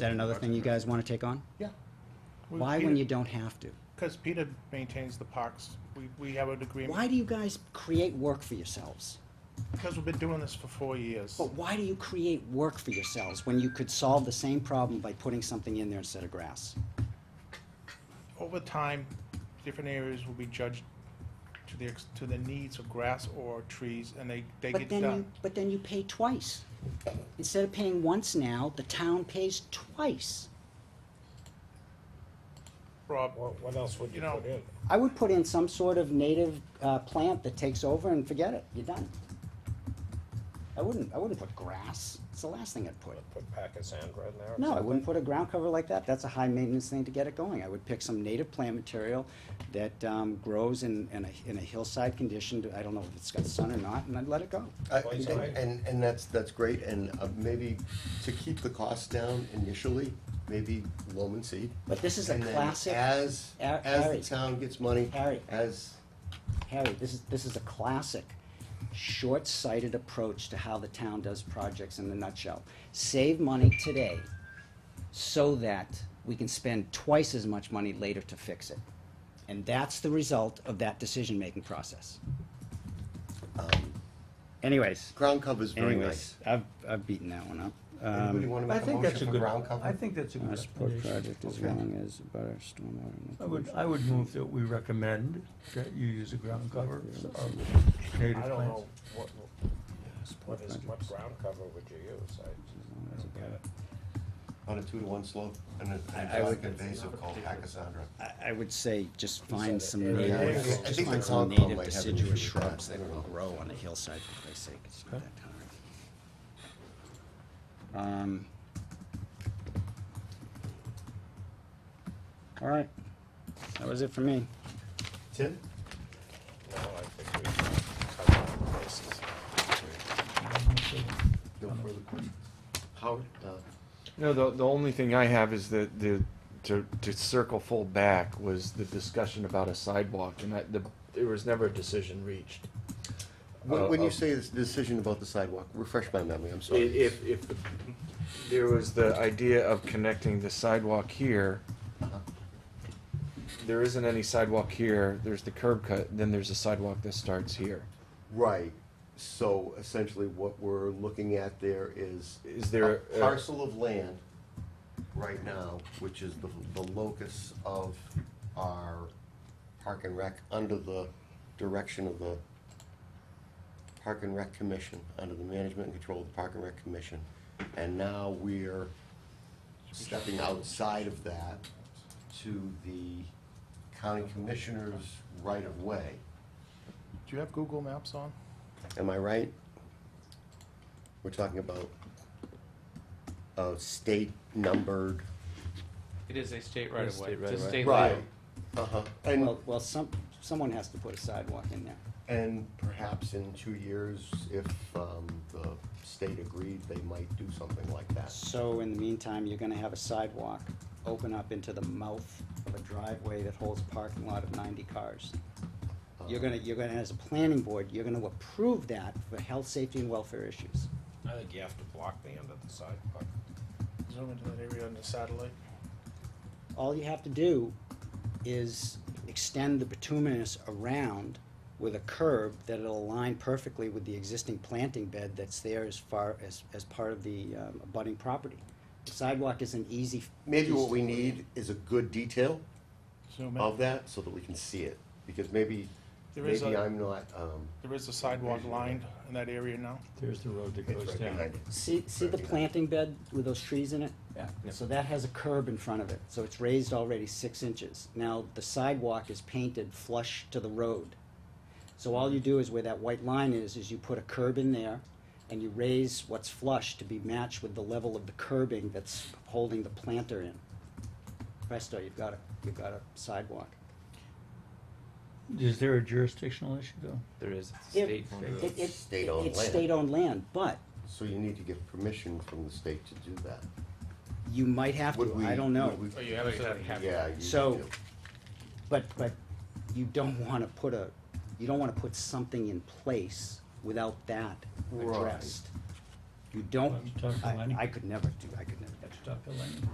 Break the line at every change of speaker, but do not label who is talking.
that another thing you guys want to take on?
Yeah.
Why when you don't have to?
Because Peter maintains the parks. We, we have an agreement.
Why do you guys create work for yourselves?
Because we've been doing this for four years.
But why do you create work for yourselves when you could solve the same problem by putting something in there instead of grass?
Over time, different areas will be judged to the, ex- to the needs of grass or trees, and they, they
But
get
then you,
done.
but then you pay twice. Instead of paying once now, the town pays twice.
Rob,
What, what else would
You
you
know-
put in?
I would put in some sort of native, uh, plant that takes over and forget it, you're done. I wouldn't, I wouldn't put grass, it's the last thing I'd put.
Put pack of sand right there? or
No, I
something?
wouldn't put a ground cover like that. That's a high maintenance thing to get it going. I would pick some native plant material that um, grows in, in, a, in a hillside condition. to- I don't know if it's got sun or not, and I'd let it go.
I-
Well,
Uh, And,
it's all right.
and, and that's, that's great, and uh, maybe to keep the costs down initially, maybe loam and seed.
But this is a
And then
classic-
As,
Ar-
as
Harry.
the town gets money,
Harry.
as,
Harry, this is, this is a classic short sighted approach to how the town does projects in the nutshell. Save money today so that we can spend twice as much money later to fix it. And that's the result of that decision making process. Anyways.
um, ground cover's very nice.
Anyways, I've, I've beaten that one up.
Anybody
Um,
wanna
I
make a
think that's
motion
a
for
good,
ground cover?
I think that's a
our
good
support
recommendation.
project as
Okay.
long as about our stormwater.
I would, I would move that we recommend that you use a ground cover of
I
native
don't
plants.
know, what, what is, what ground cover would you use? I- I don't get it.
On a two to one slope, and a- and
I- I
a
would-
invasive called Pachysandra.
I, I would say just find some
Yeah, I
native,
think- I
just
think
find
the
some
Concom
native
might have an issue
deciduous
with
shrubs
that.
that will grow on the hillside, for Christ's sake, it's not
Okay.
that hard. Um. All right, that was it for me.
Tim?
No, I think we covered all the bases.
No further questions? Howard? Uh,
No, the, the only thing I have is the, the, to, to circle full back was the discussion about a sidewalk and that the, there was never a decision reached.
When,
Uh,
when you
uh,
say this decision about the sidewalk, refresh my memory, I'm
I-
sorry.
If, if, the- there was the idea of connecting the sidewalk here.
Uh-huh.
There isn't any sidewalk here, there's the curb cut, then there's a sidewalk that starts here.
Right, so essentially what we're looking at there is.
Is
a
there a-
Parcel of land right now, which is the, the locus of our park and rec, under the direction of the Park and Rec Commission, under the management and control of the Park and Rec Commission. And now we're stepping outside of that to the county commissioner's right of way.
do you have Google Maps on?
Am I right? We're talking about a state numbered.
It is a state right of way.
state
It's a
right-of-way.
state law.
Uh-huh, and,
Well, well, some, someone has to put a sidewalk in there.
and perhaps in two years, if, um, the state agreed, they might do something like that.
So in the meantime, you're gonna have a sidewalk open up into the mouth of a driveway that holds a parking lot of ninety cars. You're gonna, you're gonna, as a planning board, you're gonna approve that for health, safety, and welfare issues.
I think you have to block the end of the sidewalk.
Zoom into that area on the satellite.
All you have to do is extend the bituminous around with a curb that'll align perfectly with the existing planting bed that's there as far as, as part of the, um, abutting property. The Sidewalk is an easy.
Maybe what we need is a good detail
Zoom
of
in.
that, so that we can see it, because maybe,
There is
maybe
a-
I'm not, um.
There is a sidewalk lined in that area now.
There's the road that
it's
goes
right
down.
behind it.
See, see the
Right.
planting bed with those trees in it?
Yeah.
So that has a curb in front of it, so it's raised already six inches. Now, the sidewalk is painted flush to the road. So all you do is where that white line is, is you put a curb in there and you raise what's flush to be matched with the level of the curbing that's holding the planter in. Presto, you've got a, you've got a sidewalk.
Is there a jurisdictional issue though?
There is it's a
If-
state. law.
It- it-
State-owned
It's
land.
state-owned land, but
So you need to get permission from the state to do that.
you might have
Would
to,
we-
I don't know.
would we-
Oh, you have to have-
Yeah, you
So-
do.
But, but you don't wanna put a, you don't wanna put something in place without that
Right.
addressed. You don't,
I'm talking
I,
money.
I could never do, I could never,
Dr. Lane.